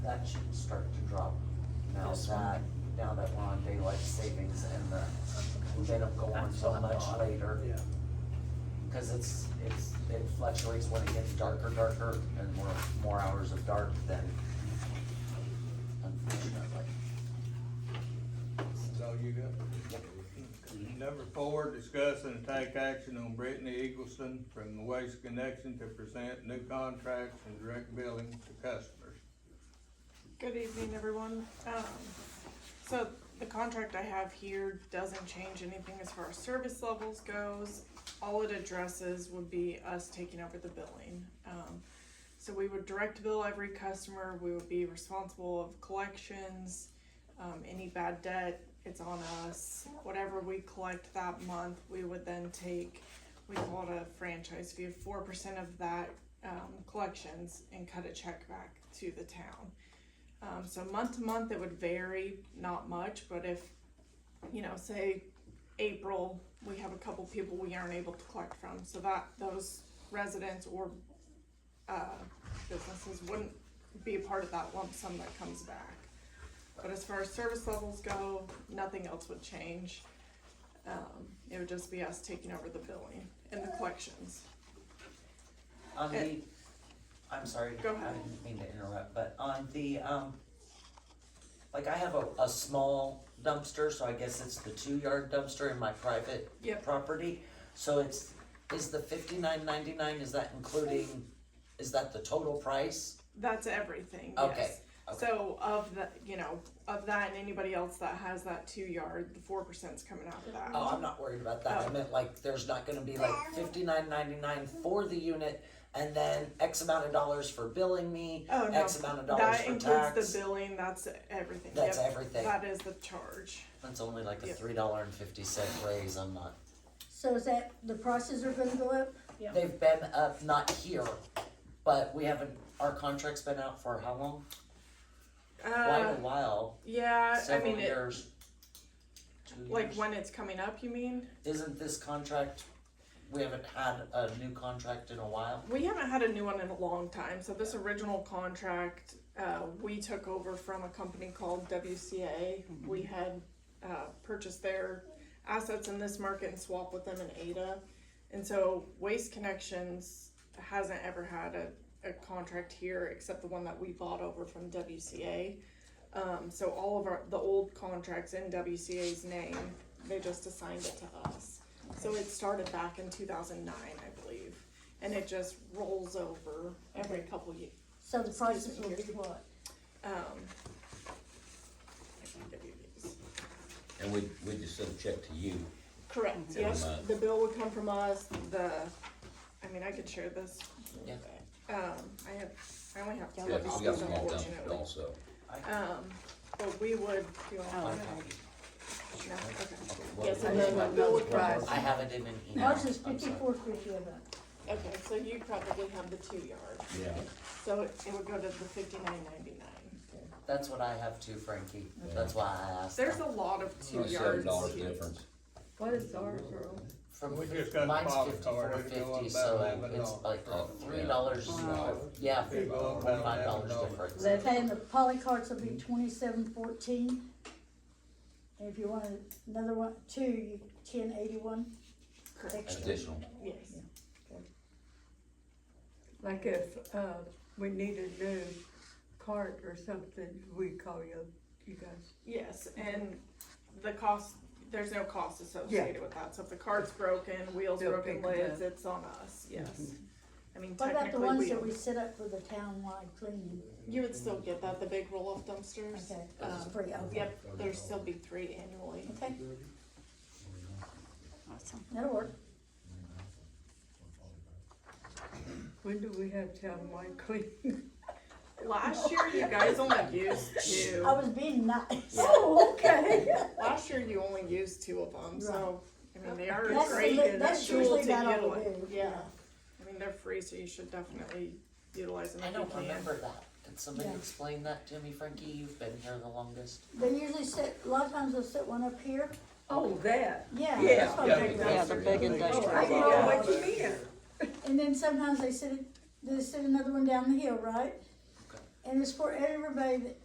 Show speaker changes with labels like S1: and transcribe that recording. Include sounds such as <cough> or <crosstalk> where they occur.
S1: that should start to drop now
S2: This
S1: that,
S2: one?
S1: now that we're on daylight savings and the, they don't go on
S2: That's
S1: so
S2: what I
S1: much
S2: thought.
S1: later.
S3: Yeah,
S1: Cause it's, it's, it fluctuates when it gets darker, darker, and more, more hours of dark than unfortunately.
S4: That's all you got? Number four, discuss and take action on Brittany Eagleson from the Waste Connection to present new contracts and direct billing to customers.
S5: Good evening, everyone. Um, so the contract I have here doesn't change anything as far as service levels goes. All it addresses would be us taking over the billing. Um, so we would direct bill every customer, we would be responsible of collections, um, any bad debt, it's on us. Whatever we collect that month, we would then take, we call it a franchise fee, four percent of that, um, collections and cut a check back to the town. Um, so month to month, it would vary, not much, but if, you know, say April, we have a couple people we aren't able to collect from, so that, those residents or, uh, businesses wouldn't be a part of that lump sum that comes back. But as far as service levels go, nothing else would change. Um, it would just be us taking over the billing and the collections.
S1: On the,
S5: It-
S1: I'm sorry, I
S5: Uh, Go ahead.
S1: didn't mean to interrupt, but on the, um, like I have a, a small dumpster, so I guess it's the two yard dumpster in my private
S5: Yep.
S1: property. So it's, is the fifty-nine ninety-nine, is that including, is that the total price?
S5: That's everything, yes.
S1: Okay, okay.
S5: So of the, you know, of that and anybody else that has that two yard, the four percent's coming out of that.
S1: Oh, I'm not worried about that. I
S5: Oh.
S1: meant like, there's not gonna be like fifty-nine ninety-nine for the unit and then X amount of dollars for billing me,
S5: Oh, no.
S1: X amount of dollars for
S5: That includes the
S1: tax.
S5: billing, that's everything.
S1: That's
S5: Yep.
S1: everything.
S5: That is the charge.
S1: That's only like a
S5: Yep.
S1: three dollar and fifty cent raise. I'm not
S6: So is that, the prices are gonna go up?
S2: Yeah.
S1: They've been up, not here, but we haven't, our contract's been out for how long? Quite
S5: Uh,
S1: a while,
S5: yeah, I
S1: several
S5: mean, it,
S1: years. Two
S5: like
S1: years.
S5: when it's coming up, you mean?
S1: Isn't this contract, we haven't had a new contract in a while?
S5: We haven't had a new one in a long time, so this original contract, uh, we took over from a company called WCA. We
S1: Mm-hmm.
S5: had, uh, purchased their assets in this market and swapped with them in Ada. And so Waste Connections hasn't ever had a, a contract here except the one that we bought over from WCA. Um, so all of our, the old contracts in WCA's name, they just assigned it to us. So it started back in two thousand nine, I believe, and it just rolls over every couple years.
S6: So the prices will be what?
S5: Um. I can give you these.
S7: And we, we just send a check to you.
S5: Correct,
S7: Every
S5: yes,
S7: month.
S5: the bill would come from us, the, I mean, I could share this.
S1: Yeah.
S5: Um, I have, I only have. two
S7: Yeah,
S5: of
S7: we
S5: these,
S7: got some all done
S5: unfortunately.
S7: also.
S5: Um, but we would, do you want
S2: Oh,
S5: one?
S2: okay.
S5: No, okay,
S7: What
S2: Yes,
S7: we-
S2: and then the bill price.
S1: I have it in an email.
S6: Ours is
S1: I'm sorry.
S6: fifty-four fifty-one.
S5: okay, so you probably have the two yard,
S7: Yeah,
S5: so it it would go to the fifty-nine ninety-nine.
S1: That's what I have too, Frankie. That's why I asked.
S5: There's a lot of two
S7: only
S5: yards.
S7: seven dollars
S5: here.
S7: difference.
S2: What is ours, Earl?
S1: From,
S4: We just got
S1: mine's
S4: box
S1: fifty-four
S4: already, go up
S1: fifty,
S4: about
S1: so
S4: eleven
S1: it's
S4: dollars.
S1: like a
S7: Yeah.
S1: three dollars,
S7: Wow.
S1: yeah,
S4: They go up about
S1: five dollars
S4: $11.
S1: difference.
S2: Let-
S6: And the poly carts will be twenty-seven fourteen. And if you want another one, two, you, ten eighty-one
S5: Correct,
S6: extra.
S7: Additional.
S5: yes.
S2: Like if, uh, we need a new cart or something, we call you, you guys.
S5: Yes, and the cost, there's no cost associated with that, so if the cart's broken, wheels
S2: They'll
S5: broken,
S2: pick it
S5: lids, it's on us, yes. I mean,
S6: What about the
S5: technically,
S6: ones
S5: we,
S6: that we set up for the townwide cleaning?
S5: you would still get that, the big roll-off dumpsters.
S6: Okay,
S5: Um,
S6: that's free, okay,
S5: Yep, there'd still be three annually.
S6: okay,
S2: Awesome.
S6: that'll work.
S2: When do we have townwide clean?
S5: Last year, you guys only <laughs> used
S6: I
S5: two,
S6: was being nice. <laughs>
S2: Oh, okay.
S5: last year you only used two of them, so, I mean, they are a
S6: That's the
S5: great
S6: li-
S5: tool to utilize.
S6: that's usually about all we do, yeah.
S5: I mean, they're free, so you should definitely utilize them
S1: I
S5: if you
S1: don't
S5: can.
S1: remember that. Did somebody
S6: Yeah.
S1: explain that to me, Frankie? You've been here the longest.
S6: They usually set, a lot of times they'll set one up here,
S2: Oh, that.
S6: yeah.
S2: Yeah,
S6: that's what I'm
S4: yeah,
S6: thinking.
S7: Yeah, the big
S2: Oh,
S7: industrial
S2: I know what you mean.
S6: And then sometimes they sit, they sit another one down the hill, right? And it's for everybody that